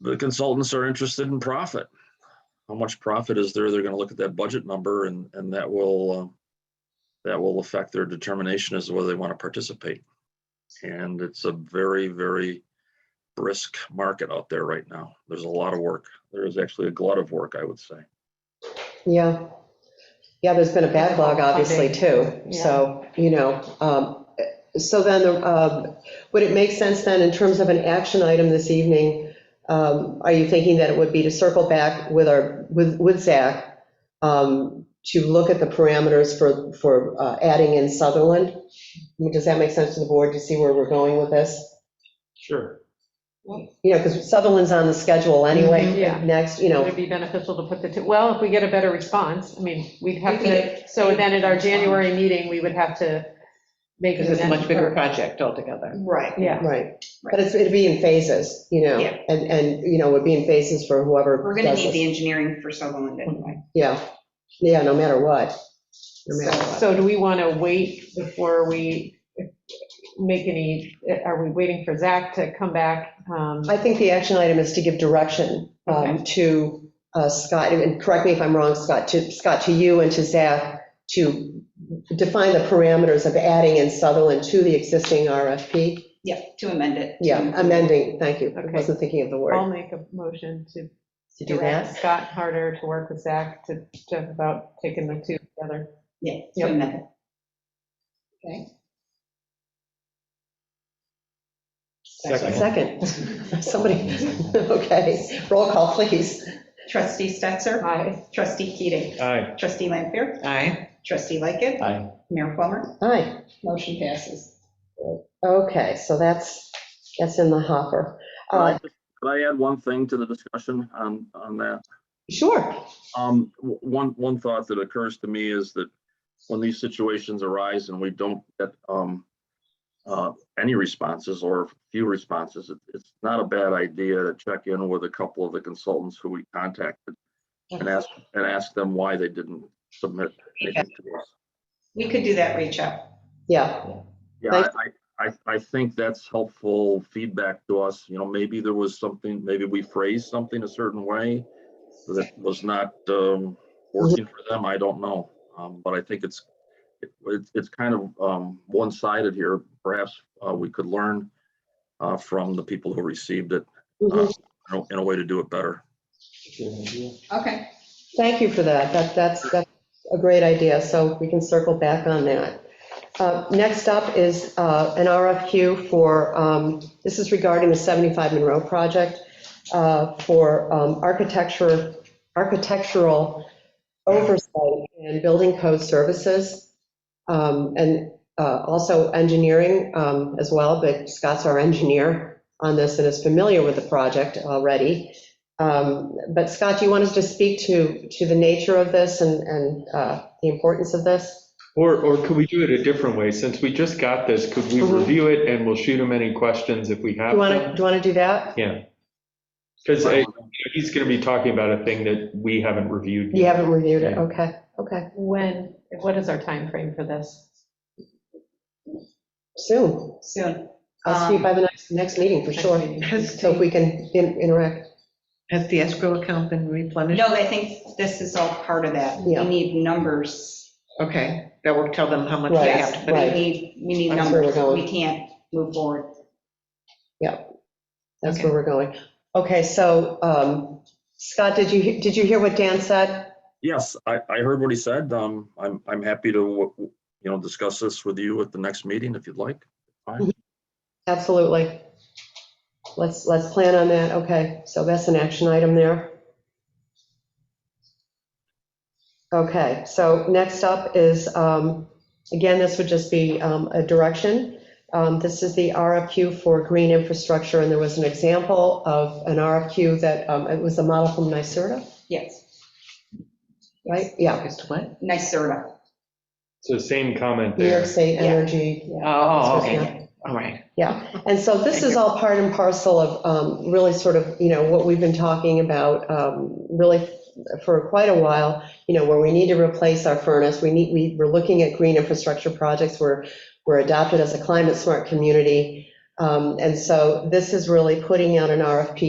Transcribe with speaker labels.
Speaker 1: the consultants are interested in profit. How much profit is there? They're gonna look at that budget number and, and that will, uh, that will affect their determination as to whether they want to participate. And it's a very, very brisk market out there right now. There's a lot of work. There is actually a glut of work, I would say.
Speaker 2: Yeah. Yeah, there's been a backlog, obviously, too. So, you know, um, so then, um, would it make sense then, in terms of an action item this evening, um, are you thinking that it would be to circle back with our, with, with Zach, um, to look at the parameters for, for uh, adding in Sutherland? I mean, Does that make sense to the board to see where we're going with this?
Speaker 3: Sure.
Speaker 2: You know, because Sutherland's on the schedule
Speaker 4: Mhm,
Speaker 2: anyway,
Speaker 4: yeah.
Speaker 2: next, you know.
Speaker 4: Would it be beneficial to put the, two? well, if we get a better response, I mean, we'd have
Speaker 5: We
Speaker 4: to, so then at our January meeting, we would have to make.
Speaker 5: Because it's
Speaker 4: an
Speaker 5: a much bigger
Speaker 4: amendment.
Speaker 5: project altogether.
Speaker 6: Right.
Speaker 4: Yeah,
Speaker 2: Right, but it's, it'd be in phases, you know,
Speaker 6: Yeah.
Speaker 2: and, and, you know, would be in phases for whoever.
Speaker 6: We're gonna
Speaker 2: does this.
Speaker 6: need
Speaker 2: Mm-hmm.
Speaker 6: the engineering for Sutherland anyway.
Speaker 2: Yeah, yeah, no matter what, no matter what.
Speaker 4: so do we want to wait before we make any, are we waiting for Zach to come back? Um,
Speaker 2: I think the action item is to give direction um, to uh, Scott, and correct me if I'm wrong, Scott, to, Scott, to you and to Zach, to define the parameters of adding in Sutherland to the existing RFP.
Speaker 6: Yeah, to amend it.
Speaker 2: Yeah, amending, thank you, I
Speaker 4: Okay.
Speaker 2: wasn't thinking of the
Speaker 4: I'll
Speaker 2: word.
Speaker 4: make a motion to
Speaker 2: To do that?
Speaker 4: direct Scott Harder to work with Zach to, to about taking the two together.
Speaker 6: Yeah,
Speaker 4: Yep.
Speaker 6: to amend it.
Speaker 3: Second.
Speaker 2: Second, somebody, okay, roll call, please.
Speaker 6: Trustee Stetser,
Speaker 4: Aye.
Speaker 6: trustee Keating,
Speaker 3: Aye.
Speaker 6: trustee Lampier,
Speaker 5: Aye.
Speaker 6: trustee Lightgev,
Speaker 3: Aye.
Speaker 6: Mayor Plummer,
Speaker 2: Aye.
Speaker 6: motion passes.
Speaker 2: Okay, so that's, that's in the hopper.
Speaker 1: Could I
Speaker 2: Uh,
Speaker 1: just- could I add one thing to the discussion on, on that?
Speaker 2: Sure,
Speaker 1: Um, w- one, one thought that occurs to me is that when these situations arise and we don't get, um, uh, any responses or few responses, it, it's not a bad idea to check in with a couple of the consultants who we contacted and ask, and ask them why they didn't submit anything to us.
Speaker 6: We could do that reach out.
Speaker 2: yeah,
Speaker 1: Yeah, I, I, I- I think that's helpful feedback to us, you know, maybe there was something, maybe we phrased something a certain way that was not, um, working for them, I don't know, um, but I think it's, it- it's, it's kind of, um, one-sided here, perhaps, uh, we could learn, uh, from the people who received it, uh,
Speaker 2: Mhm.
Speaker 1: in a- in a way to do it better.
Speaker 6: Okay.
Speaker 2: thank you for that, that, that's, that's a great idea, so we can circle back on that. Uh, Next up is uh, an RFQ for, um, this is regarding the 75 Monroe project, uh, for um, architecture, architectural oversight and building code services, um, and uh, also engineering um, as well, but Scott's our engineer on this and is familiar with the project already. Um, But Scott, do you want us to speak to, to the nature of this and, and uh, the importance of this?
Speaker 3: Or, or could we do it a different way? Since we just got this, could we
Speaker 2: Mhm.
Speaker 3: review it and we'll shoot him any questions if we
Speaker 2: Do
Speaker 3: have?
Speaker 2: you want to, do you want to do that?
Speaker 3: Because uh, he's going to be talking about a thing that we haven't reviewed.
Speaker 2: You
Speaker 3: yet.
Speaker 2: haven't reviewed it, okay, okay,
Speaker 4: When, what is our time frame for this?
Speaker 2: soon.
Speaker 6: Soon.
Speaker 2: I'll see you by the next, next meeting for
Speaker 4: Next
Speaker 2: sure.
Speaker 4: meeting.
Speaker 5: Um, Has
Speaker 2: So if we
Speaker 5: the,
Speaker 2: can in- interact,
Speaker 5: has the escrow account been replenished?
Speaker 6: No, I think this is all part of that. We
Speaker 2: Yeah.
Speaker 6: need numbers.
Speaker 5: Okay, that will tell them how much they
Speaker 2: Right,
Speaker 5: have to put in.
Speaker 2: right.
Speaker 6: We need, we need
Speaker 2: That's where we're
Speaker 6: numbers.
Speaker 2: going.
Speaker 6: We can't move forward.
Speaker 2: that's
Speaker 5: Okay.
Speaker 2: where we're going. Okay, so um, Scott, did you, he- did you hear what Dan said?
Speaker 1: Yes, I, I heard what he said, um, I'm, I'm happy to, w- w- you know, discuss this with you at the next meeting if you'd like.
Speaker 2: Absolutely. Let's, let's plan on that, okay, so that's an action item there. Okay, so next up is, um, again, this would just be um, a direction. Um, This is the RFQ for green infrastructure, and there was an example of an RFQ that, um, it was a model from NYSERDA,
Speaker 6: Yes,
Speaker 2: right? Yeah,
Speaker 5: As to what?
Speaker 6: NYSERDA.
Speaker 3: So same comment
Speaker 2: New York
Speaker 3: there.
Speaker 2: State
Speaker 6: Yeah.
Speaker 2: Energy.
Speaker 5: Oh,
Speaker 2: Yeah.
Speaker 5: okay, all right.
Speaker 2: Yeah, and so this is all part and parcel of um, really sort of, you know, what we've been talking about um, really for quite a while, you know, where we need to replace our furnace, we need, we, we're looking at green infrastructure projects, we're, we're adopted as a climate smart community. Um, And so this is really putting out an RFP